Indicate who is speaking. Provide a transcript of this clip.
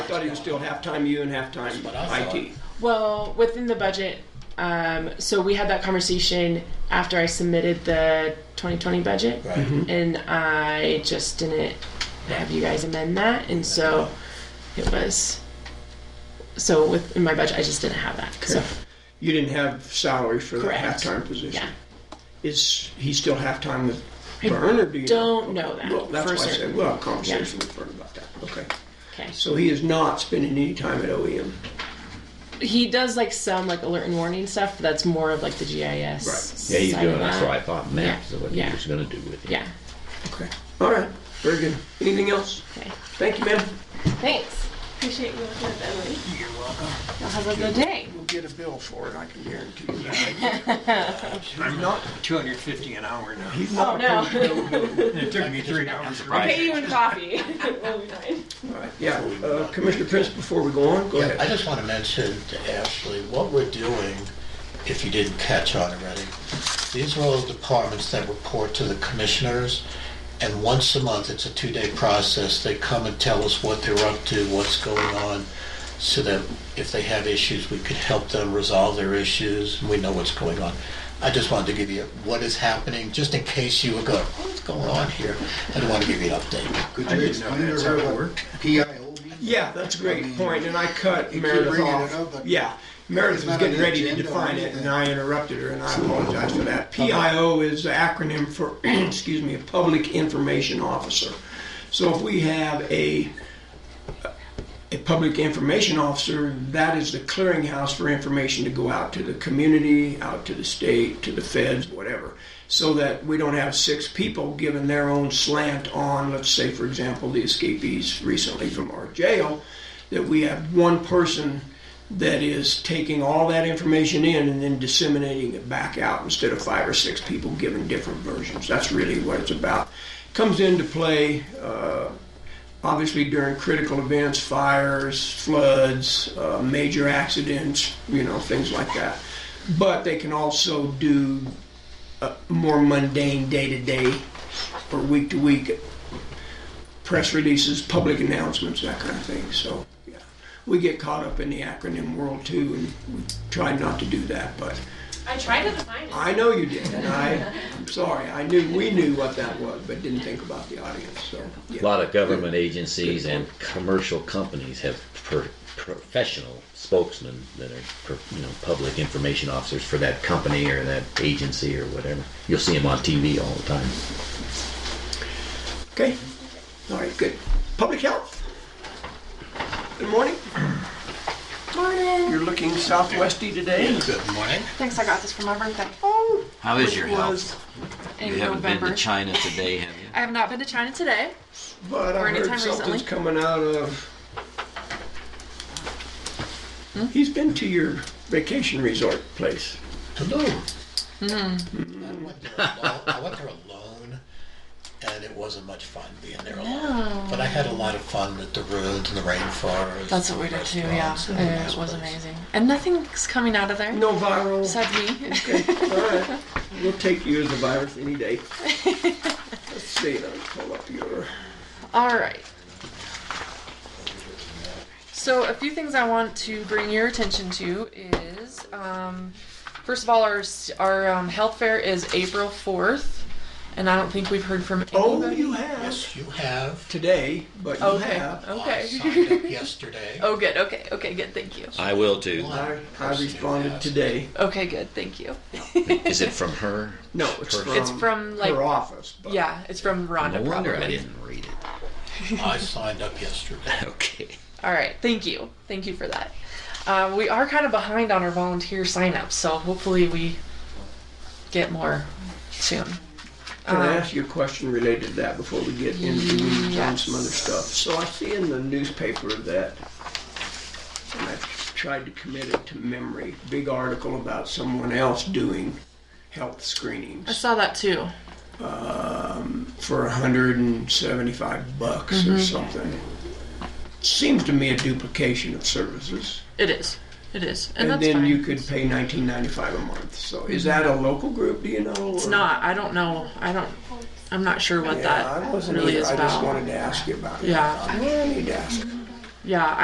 Speaker 1: thought he was still half-time you and half-time
Speaker 2: what I thought.
Speaker 1: IT.
Speaker 3: Well, within the budget, um, so we had that conversation after I submitted the 2020 budget,
Speaker 2: Right.
Speaker 4: Mm-hmm.
Speaker 3: and I just didn't have you guys amend that, and so it was. So with in my budget, I just didn't have that. So
Speaker 1: You didn't have salary for the
Speaker 3: Correct.
Speaker 1: half-time position.
Speaker 3: yeah,
Speaker 1: Is he still half-time with Vern, or do you?
Speaker 3: don't know that
Speaker 1: Well, that's
Speaker 3: for
Speaker 1: why I
Speaker 3: certain.
Speaker 1: said, we'll have a conversation with Vern about that. Okay.
Speaker 3: Okay.
Speaker 1: So he is not spending any time at E OEM.
Speaker 3: He does like some like alert and warning stuff, but that's more of like the GIS.
Speaker 1: Right.
Speaker 4: Yeah, he's
Speaker 3: side
Speaker 4: doing,
Speaker 3: of
Speaker 4: that's
Speaker 3: that.
Speaker 4: what I thought maps is what he
Speaker 3: Yeah.
Speaker 4: was gonna do with it.
Speaker 3: Yeah.
Speaker 1: Okay. All right. Very good. Anything else?
Speaker 3: Okay.
Speaker 1: Thank you, ma'am.
Speaker 3: Thanks.
Speaker 5: Appreciate you looking at that, Emily.
Speaker 1: You're welcome.
Speaker 3: Y'all have a good day.
Speaker 1: We'll get a bill for it, I can guarantee you that. I'm not,
Speaker 6: 250 an hour now.
Speaker 1: he's
Speaker 3: Oh
Speaker 1: not.
Speaker 3: no.
Speaker 6: It took me three hours. to
Speaker 4: Right.
Speaker 5: Pay you in coffee. we'll be fine.
Speaker 1: All right, Yeah, uh, Commissioner Prince, before we go on, go
Speaker 2: Yeah, I
Speaker 1: ahead.
Speaker 2: just want to mention to Ashley, what we're doing, if you didn't catch on already, these are all departments that report to the commissioners, and once a month, it's a two-day process, they come and tell us what they're up to, what's going on, so that if they have issues, we could help them resolve their issues, and we know what's going on. I just wanted to give you what is happening, just in case you were going, what's going on here? I don't want to give you an update.
Speaker 7: Could
Speaker 6: I
Speaker 7: you
Speaker 6: didn't know
Speaker 7: explain to
Speaker 6: that's how
Speaker 7: her
Speaker 6: it
Speaker 7: what
Speaker 6: worked.
Speaker 7: PIO means?
Speaker 1: Yeah, that's a
Speaker 7: I mean,
Speaker 1: great point, and I cut
Speaker 7: you keep
Speaker 1: Meredith
Speaker 7: bringing it
Speaker 1: off.
Speaker 7: up, but
Speaker 1: Yeah, Meredith
Speaker 7: it's
Speaker 1: was
Speaker 7: not on
Speaker 1: getting
Speaker 7: the
Speaker 1: ready to
Speaker 7: agenda or
Speaker 1: define it, and
Speaker 7: anything.
Speaker 1: I interrupted her, and I apologize for that. PIO is the acronym for, excuse me, Public Information Officer. So if we have a, a public information officer, that is the clearinghouse for information to go out to the community, out to the state, to the feds, whatever, so that we don't have six people giving their own slant on, let's say, for example, the escapees recently from our jail, that we have one person that is taking all that information in and then disseminating it back out instead of five or six people giving different versions. That's really what it's about. Comes into play. Uh, obviously during critical events, fires, floods, uh, major accidents, you know, things like that. But they can also do uh, more mundane day to day or week to week press releases, public announcements, that kind of thing. So, yeah, we get caught up in the acronym world too, and we try not to do that, but.
Speaker 5: I tried to define it.
Speaker 1: I know you did, and I, I'm sorry. I knew we knew what that was, but didn't think about the audience. So,
Speaker 4: A
Speaker 1: yeah.
Speaker 4: lot of government agencies and commercial companies have per, professional spokesmen that are, per, you know, public information officers for that company or that agency or whatever. You'll see them on TV all the time.
Speaker 1: Okay, all right, good. Public health. Good morning.
Speaker 8: Morning.
Speaker 1: You're looking southwesty today.
Speaker 2: Good morning.
Speaker 8: Thanks, I got this for my birthday.
Speaker 4: How is your
Speaker 1: It was,
Speaker 8: In November.
Speaker 4: China today, have you?
Speaker 8: I have not been to China today.
Speaker 1: but I
Speaker 8: Or anytime
Speaker 1: heard something's
Speaker 8: recently.
Speaker 1: coming out of.
Speaker 8: Hmm?
Speaker 1: He's been to your vacation resort place.
Speaker 2: Hello.
Speaker 8: Mm-hmm.
Speaker 2: I went there alo- I went there alone, and it wasn't much fun being there alone. But I had a lot of fun at the ruins and the rainforest.
Speaker 8: That's
Speaker 2: and
Speaker 8: what we
Speaker 2: the
Speaker 8: did too, yeah.
Speaker 2: restaurants and the
Speaker 8: And
Speaker 2: nice
Speaker 8: it was
Speaker 2: place.
Speaker 8: amazing. And nothing's coming out of there
Speaker 1: No viral.
Speaker 8: besides me.
Speaker 1: Okay, all right. We'll take you as a virus any day. Let's see. Let me pull up your.
Speaker 8: All right. So, a few things I want to bring your attention to is um, first of all, our, s- our um, health fair is April 4th, and I don't think we've heard from
Speaker 1: Oh,
Speaker 8: anybody.
Speaker 1: you have
Speaker 2: Yes, you have.
Speaker 1: today, but you
Speaker 8: okay.
Speaker 1: have.
Speaker 2: I signed
Speaker 8: Okay.
Speaker 2: up yesterday.
Speaker 8: oh, good. Okay. Okay. Good. Thank you.
Speaker 4: I will too.
Speaker 1: I,
Speaker 8: Oh.
Speaker 2: One
Speaker 1: I
Speaker 2: person who
Speaker 1: responded
Speaker 2: has.
Speaker 1: today.
Speaker 8: Okay. Good. Thank you.
Speaker 4: Is it from her?
Speaker 1: No, it's from,
Speaker 8: It's from, like-
Speaker 1: her office. But
Speaker 8: Yeah, it's from Rhonda.
Speaker 4: No wonder I
Speaker 8: probably.
Speaker 4: didn't read it.
Speaker 2: I signed up yesterday.
Speaker 4: Okay.
Speaker 8: All right, thank you, thank you for that. Um, we are kind of behind on our volunteer signups, so hopefully we get more soon.
Speaker 1: Can
Speaker 8: um,
Speaker 1: I ask you a question related to that before we get into the weeds on some other stuff? So I see in the newspaper that, and I've tried to commit it to memory, big article about someone else doing health
Speaker 8: I
Speaker 1: screenings
Speaker 8: saw that too.
Speaker 1: for 175 bucks
Speaker 8: Mm-hmm.
Speaker 1: or something. Seems to me a duplication of services.
Speaker 8: It is, it is, and,
Speaker 1: And,
Speaker 8: that's
Speaker 1: then
Speaker 8: fine.
Speaker 1: you could pay 19.95 a month. So is that a local group? Do you know?
Speaker 8: it's not. I don't know. I don't. I'm not sure what
Speaker 1: Yeah, I
Speaker 8: that
Speaker 1: wasn't
Speaker 8: really
Speaker 1: either.
Speaker 8: is
Speaker 1: I just
Speaker 8: about.
Speaker 1: wanted to ask you about it.
Speaker 8: Yeah.
Speaker 1: I need to ask.
Speaker 8: Yeah,